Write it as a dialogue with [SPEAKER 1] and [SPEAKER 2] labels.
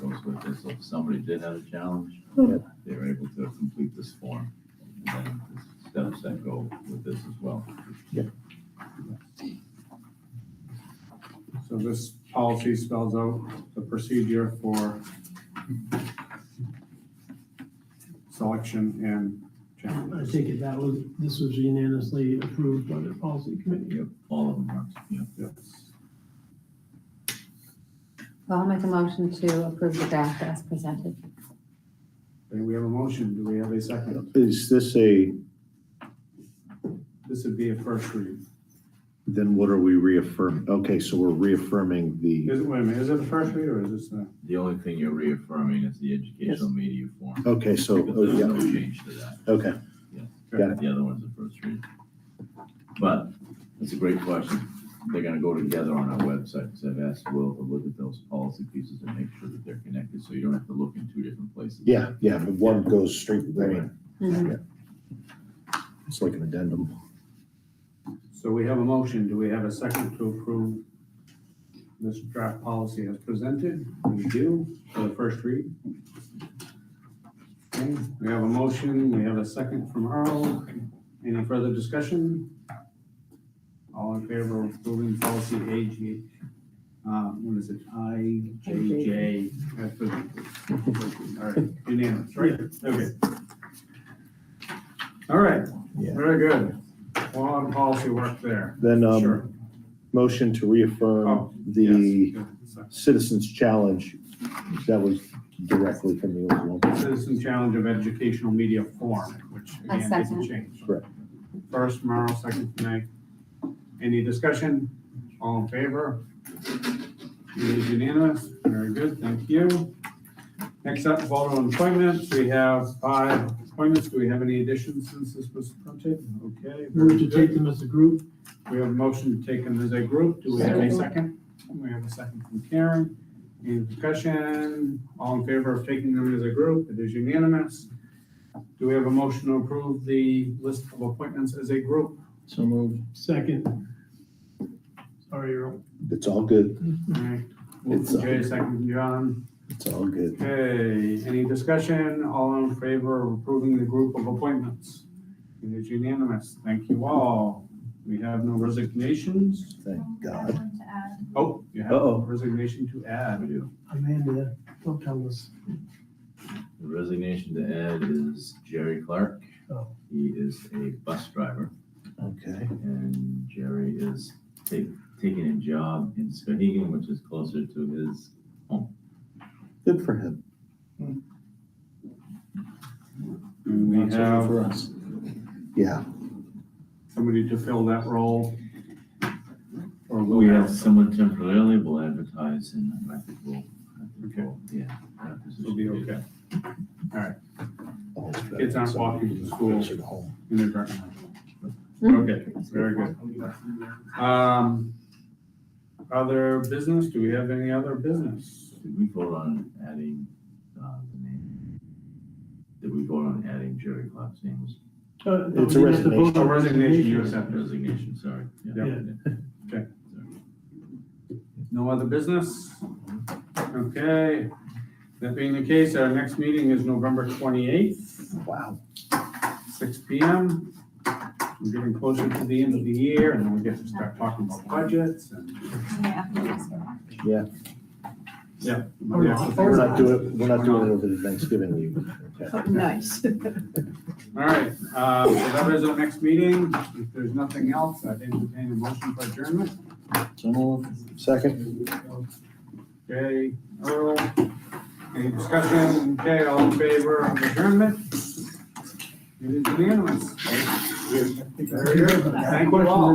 [SPEAKER 1] somebody did have a challenge,
[SPEAKER 2] Mhm.
[SPEAKER 1] they're able to complete this form. And then the Steps that go with this as well.
[SPEAKER 3] So this policy spells out the procedure for selection and
[SPEAKER 4] I
[SPEAKER 3] challenges.
[SPEAKER 4] take it that was, this was unanimously approved by the policy committee.
[SPEAKER 1] Yep, all of them are, yeah.
[SPEAKER 3] Yes.
[SPEAKER 2] I'll make a motion to approve the draft as presented.
[SPEAKER 3] Okay, we have a motion. Do we have a second?
[SPEAKER 5] Is this a,
[SPEAKER 3] This would be a first read.
[SPEAKER 5] then what are we reaffirming? Okay, so we're reaffirming the,
[SPEAKER 3] Is it, wait a minute, is it a first read or is this a?
[SPEAKER 1] The only thing you're reaffirming is the educational media form.
[SPEAKER 5] okay, so, oh,
[SPEAKER 1] There's
[SPEAKER 5] yeah,
[SPEAKER 1] no change to that.
[SPEAKER 5] okay. Got
[SPEAKER 1] The other one's the first read. But it's a great question. They're gonna go together on our website, so I've asked Will to look at those policy pieces and make sure that they're connected, so you don't have to look in two different places.
[SPEAKER 5] Yeah, yeah, but one goes straight, I mean,
[SPEAKER 2] Mhm.
[SPEAKER 5] it's like an addendum.
[SPEAKER 3] So we have a motion. Do we have a second to approve this draft policy as presented? We do for the first read. Okay, we have a motion. We have a second from Earl. Any further discussion? All in favor of approving policy AG, uh, what is it? IJJ as presented. All right, unanimous, right? Okay. All right,
[SPEAKER 5] Yeah.
[SPEAKER 3] very good. Well, on policy work there.
[SPEAKER 5] Then, um,
[SPEAKER 3] Sure.
[SPEAKER 5] motion to reaffirm
[SPEAKER 3] Oh,
[SPEAKER 5] the
[SPEAKER 3] Yes, yeah,
[SPEAKER 5] Citizens Challenge that was directly from the old one.
[SPEAKER 3] so Citizen Challenge of Educational Media Forum, which
[SPEAKER 2] I
[SPEAKER 3] again didn't
[SPEAKER 2] second.
[SPEAKER 3] change.
[SPEAKER 5] Correct.
[SPEAKER 3] First, Merrill, second, Nay. Any discussion? All in favor? It is unanimous. Very good, thank you. Next up, vote on appointments. We have five appointments. Do we have any additions since this was printed? Okay.
[SPEAKER 4] Move to
[SPEAKER 3] very good.
[SPEAKER 4] take them as a group.
[SPEAKER 3] We have a motion to take them as a group. Do we have a second? We have a second from Karen. Any discussion? All in favor of taking them as a group? It is unanimous. Do we have a motion to approve the list of appointments as a group?
[SPEAKER 4] So moved. Second. Sorry, Earl.
[SPEAKER 5] It's all good,
[SPEAKER 3] All right. Move from Jay, second from John.
[SPEAKER 5] it's all good.
[SPEAKER 3] Okay, any discussion? All in favor of approving the group of appointments? It is unanimous. Thank you all. We have no resignations.
[SPEAKER 5] Thank
[SPEAKER 6] I
[SPEAKER 5] God.
[SPEAKER 6] want to add,
[SPEAKER 3] Oh, you have a
[SPEAKER 5] Uh-oh.
[SPEAKER 3] resignation to add.
[SPEAKER 4] Amanda, don't tell us.
[SPEAKER 1] The resignation to add is Jerry Clark.
[SPEAKER 4] Oh.
[SPEAKER 1] He is a bus driver,
[SPEAKER 5] Okay,
[SPEAKER 1] and Jerry is ta- taking a job in Skahegan, which is closer to his
[SPEAKER 5] good for him.
[SPEAKER 3] And we
[SPEAKER 5] Not so good
[SPEAKER 3] have
[SPEAKER 5] For us. Yeah,
[SPEAKER 3] somebody to fill that role? Or will
[SPEAKER 1] We have someone temporarily, we'll advertise and I think we'll, I think
[SPEAKER 3] Okay.
[SPEAKER 1] we'll, yeah. that position
[SPEAKER 3] It'll be
[SPEAKER 1] will
[SPEAKER 3] okay.
[SPEAKER 5] always better.
[SPEAKER 3] Kids aren't walking to the school.
[SPEAKER 5] Closer to home.
[SPEAKER 3] Inadvertently.
[SPEAKER 2] Mhm.
[SPEAKER 3] Okay, very good. Um, other business, do we have any other business?
[SPEAKER 1] Did we vote on adding, uh, the name? Did we vote on adding Jerry Clark's name as
[SPEAKER 4] Uh, no,
[SPEAKER 5] It's a
[SPEAKER 4] we have to vote
[SPEAKER 5] resignation.
[SPEAKER 4] on
[SPEAKER 3] A resignation, you accept it.
[SPEAKER 1] resignation, sorry?
[SPEAKER 4] Yeah.
[SPEAKER 3] No other business? Okay, that being the case, our next meeting is November twenty-eighth,
[SPEAKER 5] Wow.
[SPEAKER 3] six P M. We're getting closer to the end of the year and then we get to start talking about budgets and.
[SPEAKER 6] I'm gonna add this one.
[SPEAKER 3] Yeah.
[SPEAKER 4] Or not.
[SPEAKER 5] We're not doing, it. we're not doing it over the Thanksgiving week. Okay.
[SPEAKER 7] Nice.
[SPEAKER 3] All right, uh, so that is our next meeting. If there's nothing else, I'd entertain a motion for adjournment.
[SPEAKER 5] So moved. Second?
[SPEAKER 3] Okay, Earl, any discussion? Okay, all in favor of adjournment? It is unanimous. Very good. Thank you all.